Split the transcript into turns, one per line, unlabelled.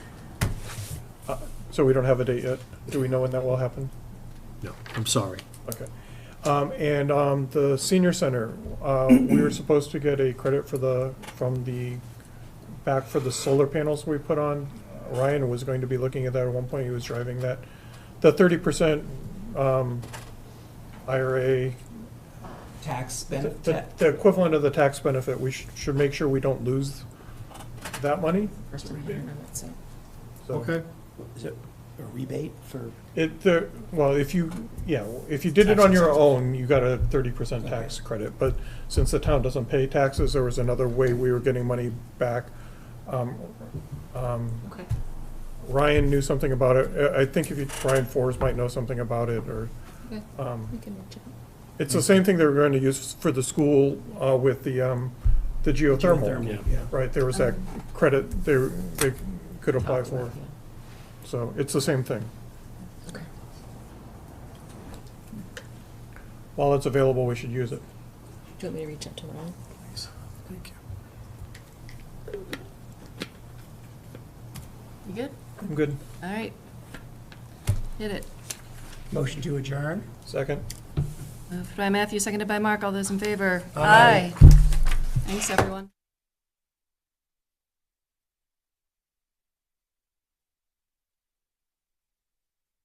So we don't have a date yet. Do we know when that will happen?
No, I'm sorry.
Okay. Um, and, um, the senior center, uh, we were supposed to get a credit for the, from the, back for the solar panels we put on. Ryan was going to be looking at that at one point, he was driving that. The thirty percent, um, IRA,
Tax
the-
benefit,
the, the equivalent of the tax benefit, we should, should make sure we don't lose that money,
first time hearing of it, so.
so.
Is it a rebate for,
It, the, well, if you, yeah, if you did it on your own, you got a thirty percent tax credit, but since the town doesn't pay taxes, there was another way we were getting money back. Um, um,
Okay.
Ryan knew something about it, I, I think if you, Ryan Forrest might know something about it, or,
Okay.
um,
We can watch it.
it's the same thing they were going to use for the school, uh, with the, um, the geothermal.
Geothermal.
Yeah.
Right, there was that credit they, they could apply for, so it's the same thing.
Okay.
While it's available, we should use it.
Do you want me to reach out to Ron?
Thank you.
You good?
I'm good.
All right. Hit it.
motion to adjourn?
Second?
Uh, Moved by Matthew, seconded by Mark. All those in favor?
Aye.
Thanks, everyone.